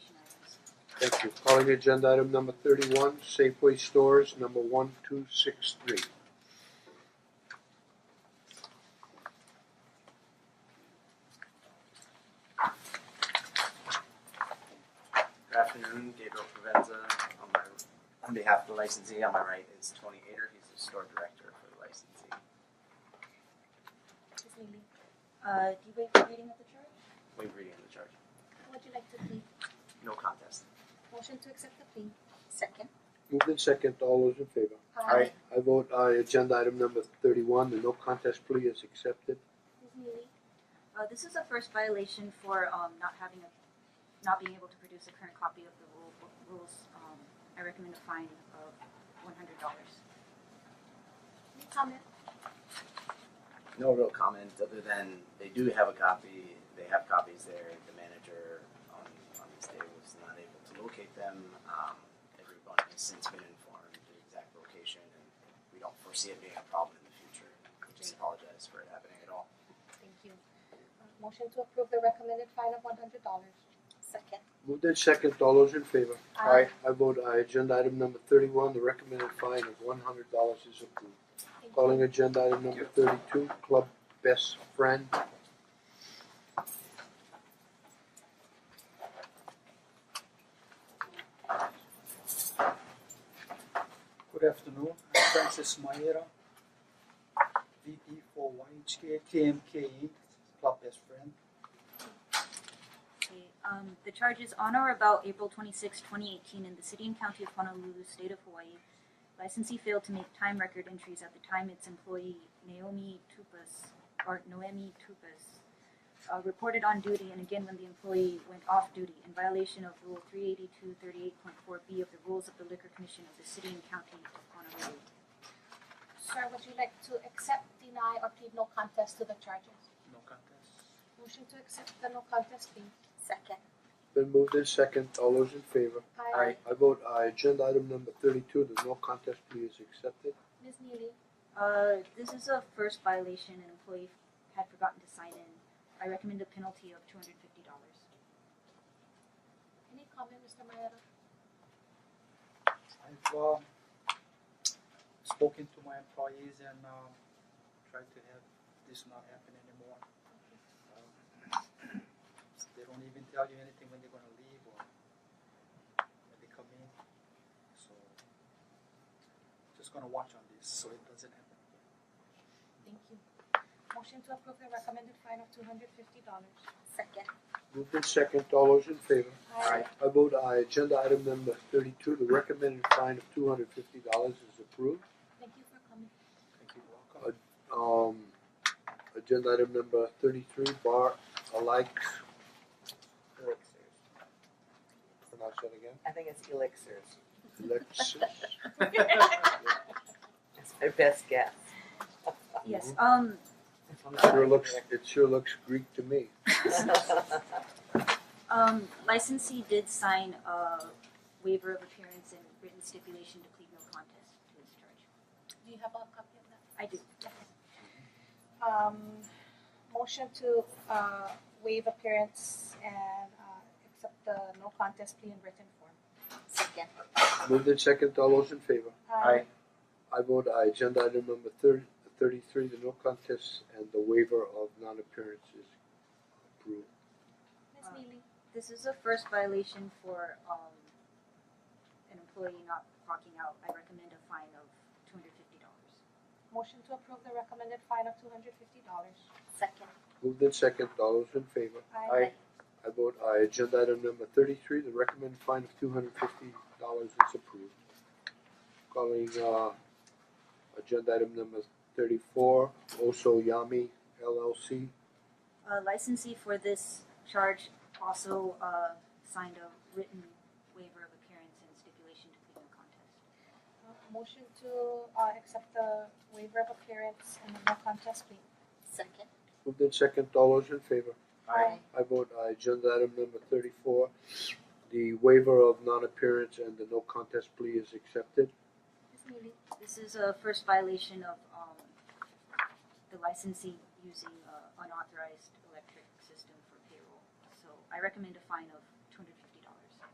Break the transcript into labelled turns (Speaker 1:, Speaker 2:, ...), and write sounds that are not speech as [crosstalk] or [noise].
Speaker 1: Thank you. Calling agenda item number thirty-one, Safeway Stores, number one two six three.
Speaker 2: Good afternoon, Gabriel Provenza. On my, on behalf of the licensee, on my right is Tony Ader, he's the store director for the licensee.
Speaker 3: Ms. Levy, uh, do you waive the reading of the charge?
Speaker 2: Waive reading of the charge.
Speaker 3: Would you like to plead?
Speaker 2: No contest.
Speaker 3: Motion to accept the plea. Second.
Speaker 1: Moved in second, all those in favor?
Speaker 3: Uh,
Speaker 2: Aye.
Speaker 1: I vote aye, agenda item number thirty-one, the no contest plea is accepted.
Speaker 3: Ms. Neely? Uh, this is a first violation for, um, not having a, not being able to produce a current copy of the rule, book- rules. Um, I recommend a fine of one hundred dollars. Any comment?
Speaker 2: No real comment other than they do have a copy, they have copies there. The manager on, on this day was not able to locate them. Um, everyone has since been informed the exact location and we don't foresee it being a problem in the future. We just apologize for it happening at all.
Speaker 4: Thank you. Uh, Motion to approve the recommended fine of one hundred dollars.
Speaker 3: Second.
Speaker 1: Moved in second, all those in favor?
Speaker 4: Aye.
Speaker 1: I vote aye, agenda item number thirty-one, the recommended fine of one hundred dollars is approved.
Speaker 4: Thank you.
Speaker 1: Calling agenda item number thirty-two, Club Best Friend.
Speaker 5: Good afternoon, I'm Francis Maera, VP for YHK KMKE, Club Best Friend.
Speaker 3: Okay, um, the charge is on or about April 26, 2018, in the city and county of Honolulu, state of Hawaii. Licensee failed to make time record entries at the time its employee Naomi Tupas, or Noemi Tupas, uh, reported on duty and again when the employee went off duty in violation of Rule 38238.4B of the Rules of the Liquor Commission of the city and county of Honolulu.
Speaker 4: Sir, would you like to accept, deny, or plead no contest to the charges?
Speaker 5: No contest.
Speaker 4: Motion to accept the no contest plea.
Speaker 3: Second.
Speaker 1: Been moved in second, all those in favor?
Speaker 4: Aye.
Speaker 1: I vote aye, agenda item number thirty-two, the no contest plea is accepted.
Speaker 4: Ms. Neely,
Speaker 3: Uh, this is a first violation. An employee had forgotten to sign in. I recommend a penalty of $250.
Speaker 4: any comment, Mr. Maeda?
Speaker 5: I've um spoken to my employees and um tried to have this not happen anymore. Um, [clears throat] They don't even tell you anything when they're gonna leave or when they come in, so just gonna watch on this so it doesn't happen again.
Speaker 4: Thank you. Motion to approve the recommended fine of two hundred fifty dollars. Second.
Speaker 1: Moved in second, all those in favor?
Speaker 2: Aye.
Speaker 1: I vote aye, agenda item number thirty-two, the recommended fine of two hundred fifty dollars is approved.
Speaker 4: Thank you for coming. [laughs]
Speaker 5: Thank you, welcome.
Speaker 1: Um, agenda item number thirty-three, Bar Alike,
Speaker 6: Elixirs.
Speaker 1: pronounce that again,
Speaker 6: I think it's elixirs.
Speaker 1: Alexis.
Speaker 6: It's my best guess. [laughs]
Speaker 3: Yes, um,
Speaker 1: Sure looks, it sure looks Greek to me.
Speaker 3: [laughs] um, licensee did sign a waiver of appearance and written stipulation to plead no contest to this charge.
Speaker 4: Do you have a copy of that?
Speaker 3: I do.
Speaker 4: Um, motion to, uh, waive appearance and, uh, accept the no contest plea in written form.
Speaker 3: Second.
Speaker 1: Moved in second, all those in favor?
Speaker 4: Aye.
Speaker 1: I vote aye, agenda item number thirty, thirty-three, the no contest and the waiver of non-appearance is approved.
Speaker 4: Ms. Neely,
Speaker 3: This is a first violation for, um, an employee not clocking out. I recommend a fine of two hundred fifty dollars.
Speaker 4: motion to approve the recommended fine of two hundred fifty dollars.
Speaker 3: Second.
Speaker 1: Moved in second, all those in favor?
Speaker 4: Aye.
Speaker 1: I vote aye, agenda item number thirty-three, the recommended fine of two hundred fifty dollars is approved. Calling, uh, agenda item number thirty-four, Oso Yami LLC.
Speaker 3: Uh, licensee for this charge also, uh, signed a written waiver of appearance and stipulation to plead no contest.
Speaker 4: Uh, Motion to, uh, accept the waiver of appearance and the no contest plea.
Speaker 3: Second.
Speaker 1: Moved in second, all those in favor?
Speaker 2: Aye.
Speaker 1: I vote aye, agenda item number thirty-four, the waiver of non-appearance and the no contest plea is accepted.
Speaker 4: Ms. Neely,
Speaker 3: This is a first violation of um the licensee using uh unauthorized electric system for payroll. So I recommend a fine of